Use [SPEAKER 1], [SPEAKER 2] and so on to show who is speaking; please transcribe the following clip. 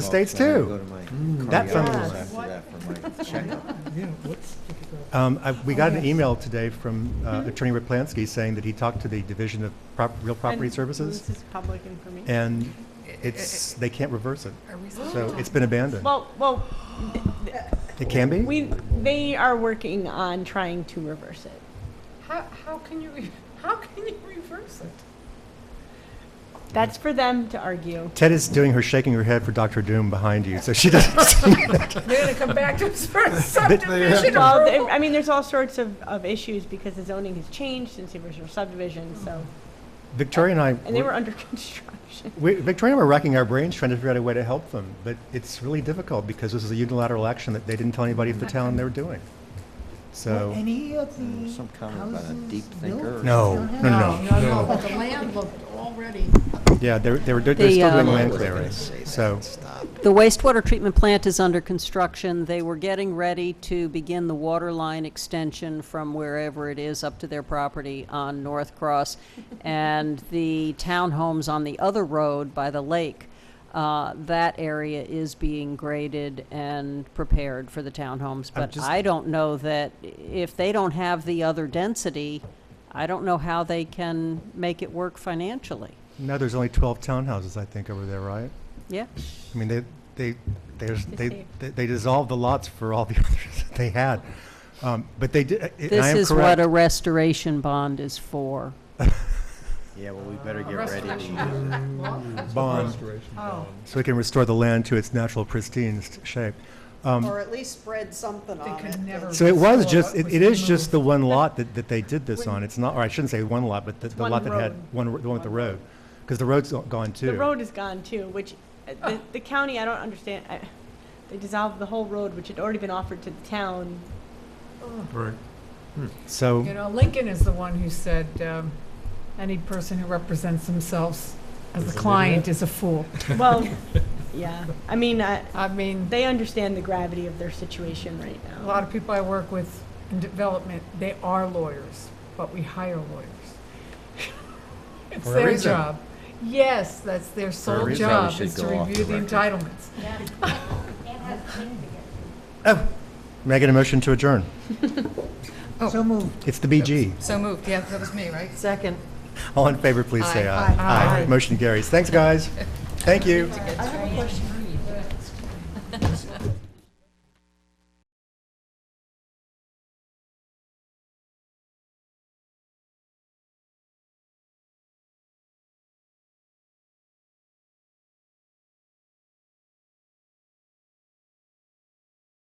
[SPEAKER 1] the States
[SPEAKER 2] Well, I
[SPEAKER 1] too.
[SPEAKER 2] gotta go to my
[SPEAKER 1] that
[SPEAKER 2] cardiologist
[SPEAKER 1] sounds-
[SPEAKER 2] After that for my checkup.
[SPEAKER 1] Um, I- We got an email today from uh, Attorney Raplansky saying that he talked to the Division of Prop- Real Property
[SPEAKER 3] And
[SPEAKER 1] Services,
[SPEAKER 3] This is public information.
[SPEAKER 1] and it's, they can't reverse it. So it's been abandoned.
[SPEAKER 3] Well, well,
[SPEAKER 1] It can be?
[SPEAKER 3] we, they are working on trying to reverse it.
[SPEAKER 4] How, how can you, re- how can you reverse it?
[SPEAKER 3] That's for them to argue.
[SPEAKER 1] Ted is doing her shaking her head for Dr. Doom behind you, so she doesn't.
[SPEAKER 4] They're gonna come back to us for a subdivision
[SPEAKER 3] Well, they-
[SPEAKER 4] approval?
[SPEAKER 3] I mean, there's all sorts of, of issues because the zoning has changed since the original subdivision, so,
[SPEAKER 1] Victoria and I,
[SPEAKER 3] and they were
[SPEAKER 1] were-
[SPEAKER 3] under construction.
[SPEAKER 1] we- Victoria and I were racking our brains trying to figure out a way to help them, but it's really difficult because this is a unilateral action that they didn't tell anybody at the town they were doing.
[SPEAKER 5] Were
[SPEAKER 1] So,
[SPEAKER 5] Any of
[SPEAKER 2] Mm,
[SPEAKER 5] the
[SPEAKER 2] some comment about a
[SPEAKER 5] houses
[SPEAKER 2] deep
[SPEAKER 5] built?
[SPEAKER 2] thinker or
[SPEAKER 1] No,
[SPEAKER 5] don't
[SPEAKER 1] no, no,
[SPEAKER 5] have-
[SPEAKER 1] no.
[SPEAKER 6] No, no,
[SPEAKER 5] No.
[SPEAKER 6] but the land looked already,
[SPEAKER 1] yeah, they're, they were, do- they're
[SPEAKER 7] The,
[SPEAKER 1] still doing
[SPEAKER 7] um,
[SPEAKER 1] land
[SPEAKER 2] I wasn't gonna
[SPEAKER 1] clearing,
[SPEAKER 2] say that.
[SPEAKER 1] so.
[SPEAKER 2] Stop.
[SPEAKER 7] The wastewater treatment plant is under construction. They were getting ready to begin the water line extension from wherever it is up to their property on North Cross. And the townhomes on the other road by the lake, uh, that area is being graded and prepared for the townhomes.
[SPEAKER 1] I'm
[SPEAKER 7] But
[SPEAKER 1] just-
[SPEAKER 7] I don't know that, if they don't have the other density, I don't know how they can make it work financially.
[SPEAKER 1] Now there's only 12 townhouses, I think, over there, right?
[SPEAKER 7] Yeah?
[SPEAKER 1] I mean, they, they, there's,
[SPEAKER 3] Just
[SPEAKER 1] they,
[SPEAKER 3] save.
[SPEAKER 1] they they dissolved the lots for all the others that they had. Um, But they did, and I
[SPEAKER 7] This
[SPEAKER 1] am
[SPEAKER 7] is what
[SPEAKER 1] correct.
[SPEAKER 7] a restoration bond is for.
[SPEAKER 2] Yeah, well, we better get
[SPEAKER 6] Rest
[SPEAKER 2] ready to
[SPEAKER 6] action.
[SPEAKER 2] use it.
[SPEAKER 1] Bond,
[SPEAKER 6] oh,
[SPEAKER 1] so we can restore the land to its natural pristine s- shape. Um,
[SPEAKER 8] Or at least spread something
[SPEAKER 6] they
[SPEAKER 8] on it.
[SPEAKER 6] could never.
[SPEAKER 1] So it was
[SPEAKER 6] restore
[SPEAKER 1] just,
[SPEAKER 6] what
[SPEAKER 1] it
[SPEAKER 6] was
[SPEAKER 1] it is
[SPEAKER 6] removed.
[SPEAKER 1] just the one lot that, that they did this on. It's not, or I shouldn't say one lot, but the- the
[SPEAKER 3] one
[SPEAKER 1] lot that had,
[SPEAKER 3] road.
[SPEAKER 1] one, r- the one with the road. Because the road's go- gone too.
[SPEAKER 3] The road is gone too, which, uh, the, the county, I don't understand, I, they dissolved the whole road, which had already been offered to the town.
[SPEAKER 6] Right.
[SPEAKER 1] So,
[SPEAKER 6] You know, Lincoln is the one who said, um, any person who represents themselves as a client is a fool.
[SPEAKER 3] Well, yeah, I mean, I,
[SPEAKER 6] I mean,
[SPEAKER 3] they understand the gravity of their situation right now.
[SPEAKER 6] a lot of people I work with in development, they are lawyers, but we hire lawyers. It's
[SPEAKER 5] For a
[SPEAKER 6] their
[SPEAKER 5] reason.
[SPEAKER 6] job. Yes, that's their sole
[SPEAKER 2] reason.
[SPEAKER 6] job,
[SPEAKER 2] Probably should
[SPEAKER 6] is to
[SPEAKER 2] go off
[SPEAKER 6] review
[SPEAKER 2] the
[SPEAKER 6] the entitlements.
[SPEAKER 1] oh, may I get a motion to adjourn?
[SPEAKER 5] So moved.
[SPEAKER 1] It's the BG.
[SPEAKER 9] So moved, yeah, that was me, right?
[SPEAKER 8] Second.
[SPEAKER 1] All in favor, please say aye.
[SPEAKER 6] Aye.
[SPEAKER 1] Motion carries. Thanks, guys. Thank you.